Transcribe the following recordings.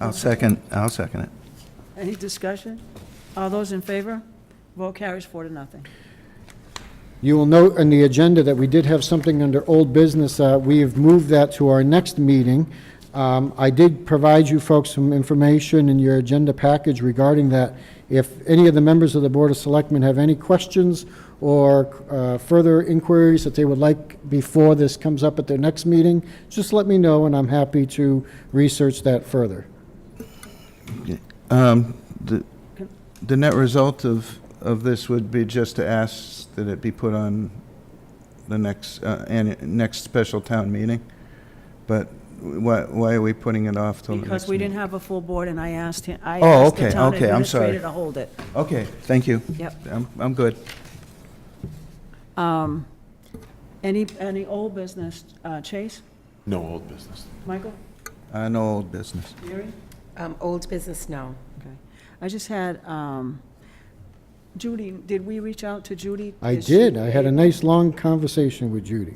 I'll second, I'll second it. Any discussion? All those in favor? Vote carries four to nothing. You will note on the agenda that we did have something under old business. uh, We have moved that to our next meeting. Um, I did provide you folks some information in your agenda package regarding that. If any of the members of the Board of Selectmen have any questions or uh, further inquiries that they would like before this comes up at their next meeting, just let me know, and I'm happy to research that further. Um, The the net result of, of this would be just to ask that it be put on the next, uh, annu- next special town meeting. But why, why are we putting it off till the next? Because we didn't meeting? have a full board, and I asked him, I Oh, asked the okay, town okay, I'm sorry. administrator to hold it. Okay, thank you. Yep. I'm, I'm good. Um, Any, any old business? Uh, Chase? No old business. Michael? Uh, No old business. Mary? Um, Old business, no. Okay. I just had, um, Judy, did we reach out to Judy? I Is she- did. I had a nice, long conversation with Judy.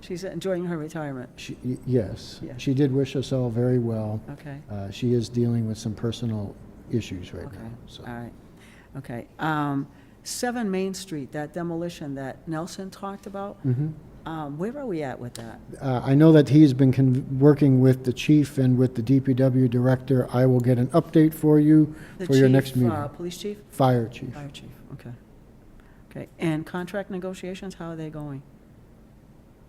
She's enjoying her retirement. She- y- Yes, Yeah. she did wish us all very well. Okay, Uh, She is dealing with some personal issues right okay, now. all so. right. Okay. Um, Seven Main Street, that demolition that Nelson talked about, Mhm. um, where are we at with that? Uh, I know that he's been con- working with the chief and with the DPW director. I will get an update for you The for your chief, next uh, meeting. Police chief? Fire chief. Fire chief, okay. Okay, and contract negotiations, how are they going?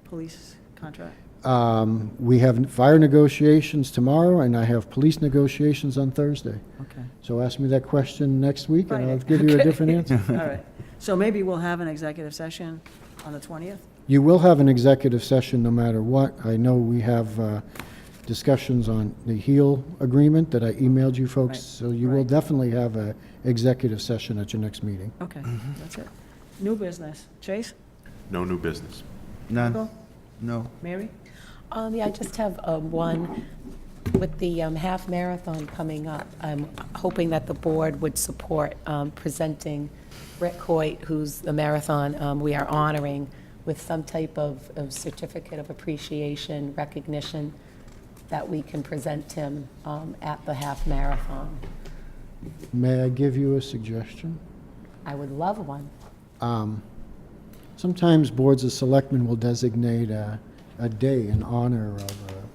Police contract? Um, We have fire negotiations tomorrow, and I have police negotiations on Thursday. Okay. So ask me that question next week, and I'll Friday. give you a Okay. different answer. All right. So maybe we'll have an executive session on the 20th? You will have an executive session no matter what. I know we have uh, discussions on the HEAL agreement that I emailed you folks, Right, so you will right. definitely have a executive session at your next meeting. Okay, Mm-hmm. that's it. New business. Chase? No new business. None? Michael? No. Mary? Um, yeah, I just have, um, one, with the, um, half marathon coming up, I'm hoping that the board would support, um, presenting Rick Hoyt, who's the marathon, um, we are honoring with some type of, of certificate of appreciation, recognition, that we can present him, um, at the half marathon. May I give you a suggestion? I would love one. Um, Sometimes boards of selectmen will designate a, a day in honor of an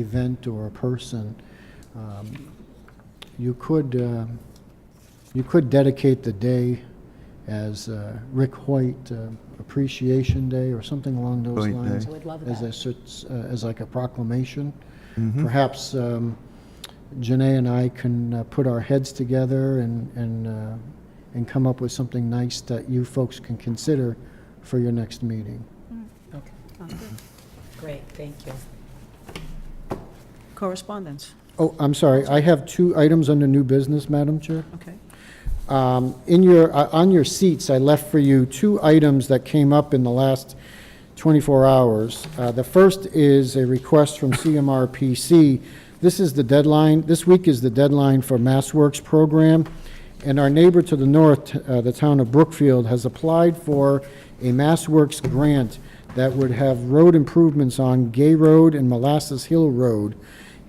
event or a person. Um, You could, um, you could dedicate the day as uh, Rick Hoyt uh, Appreciation Day or something along those Hoyt lines. Day. I would love As that. a cert- uh, as like a proclamation. Mm-hmm. Perhaps um, Janae and I can uh, put our heads together and, and, uh, and come up with something nice that you folks can consider for your next meeting. Okay. Great, thank you. Correspondence? Oh, I'm sorry, I have two items under new business, Madam Chair. Okay. Um, In your, uh, on your seats, I left for you two items that came up in the last 24 hours. Uh, The first is a request from CMRPC. This is the deadline, this week is the deadline for MassWorks program, and our neighbor to the north, uh, the town of Brookfield, has applied for a MassWorks grant that would have road improvements on Gay Road and Molasses Hill Road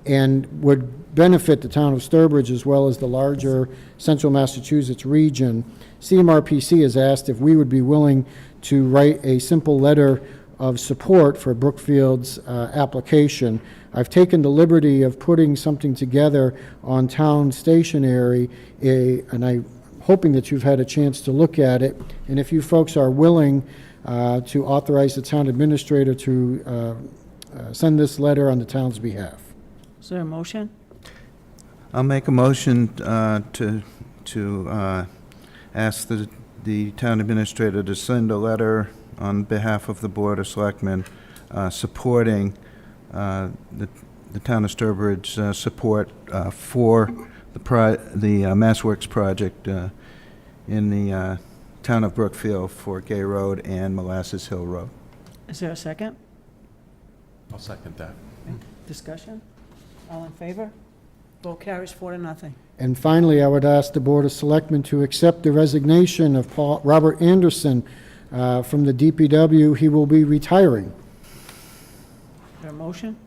and would benefit the town of Sturbridge as well as the larger central Massachusetts region. CMRPC has asked if we would be willing to write a simple letter of support for Brookfield's uh, application. I've taken the liberty of putting something together on town stationery, a- and I hoping that you've had a chance to look at it. And if you folks are willing uh, to authorize the town administrator to uh, uh, send this letter on the town's behalf. Is there a motion? I'll make a motion uh, to, to uh, ask the, the town administrator to send a letter on behalf of the Board of Selectmen uh, supporting uh, the, the town of Sturbridge, uh support uh, for the, pro- the uh, Mass Works project uh, in the uh, town of Brookfield for Gay Road and Molasses Hill Road. Is there a second? I'll second that. Discussion? All in favor? Vote carries four to nothing. And finally, I would ask the Board of Selectmen to accept the resignation of Paul, Robert Anderson uh, from the DPW. He will be retiring. Is there a motion?